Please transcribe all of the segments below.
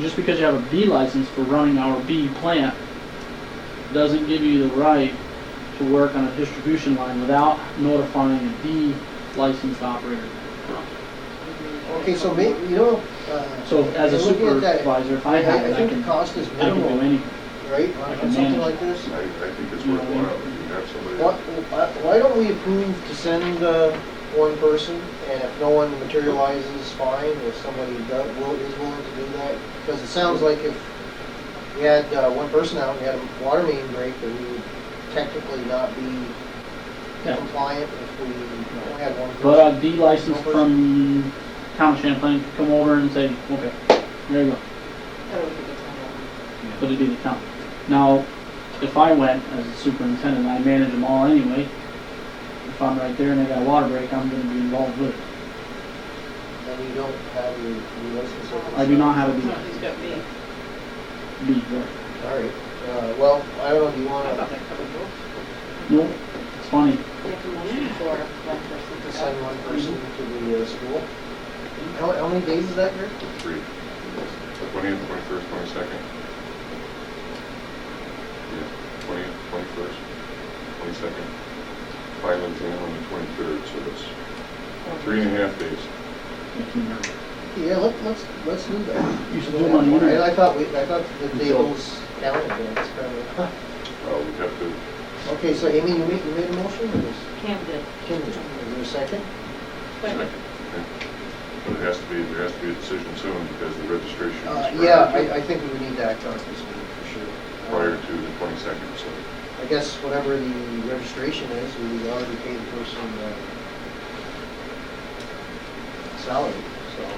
Just because you have a B license for running our B plant doesn't give you the right to work on a distribution line without notifying a D licensed operator. Okay, so may, you know, uh. So as a looking at that, supervisor, if I have it, I think the can, cost is I can do minimal, anything. right, I on can something manage. like this? I, I think it's worthwhile, if you have Why, somebody, why why don't we approve to send, uh, one person, and if no one materializes, fine, if somebody does, will, is willing to do that? Because it sounds like if we had, uh, one person out, and we had a water main break, then we would technically not be Yeah. compliant if we only had one person. But a D license from town of Champlain could come over and say, okay, there you go, That would be the time. but it'd be the town. Now, if I went as a superintendent, I manage them all anyway, if I'm right there and they got a water break, I'm gonna be involved with it. And you don't have your, your license. I do not have a No, he's got me. B, B, right? All right, uh, well, I don't know, do you I thought wanna that covered both. Nope, it's funny. You have to motion for one person to send sign one person to the, uh, school? How, how many days is that, Rick? three, twentieth, twenty-first, twenty-second. Yeah, twentieth, twenty-first, twenty-second, final exam on the twenty-third, so that's three and a half days. Yeah, let, let's, let's do that. You should do it on the I- I internet. thought we, I thought the tables down that's kind Well, Uh, we have to, of. Okay, so Amy, you made, you made a motion, or was Cam did. Kim, is there a second? Second. but it has to be, there has to be a decision soon, because the registration Uh, is yeah, prior I, I to, think we would need to act on it this meeting for sure. Uh, prior to the twenty-second, so. I guess whatever the registration is, we already paid the person, uh, salary, so. I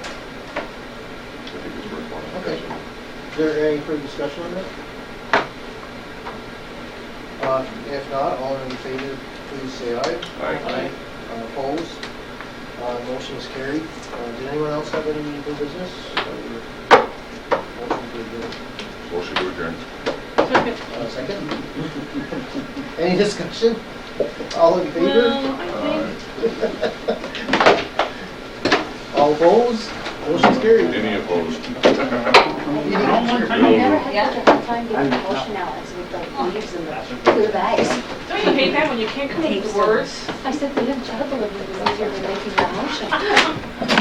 think it's worthwhile. Okay. Is there any further discussion on that? Uh, if not, all in favor, please say aye. Aye. Uh, Opposed? Uh, Motion is carried. Uh, Did anyone else have any new business? Or- Motion to adjourn. Motion to adjourn. Second. Uh, Second? Any discussion? All in favor? Well, I think. Uh, All opposed? Motion is carried. Any opposed? I never had such a hard time getting emotion out as with the leaves and the blue bags. Don't you hate that when you can't come up with words? I said, we have trouble with it, it was easier than making that motion.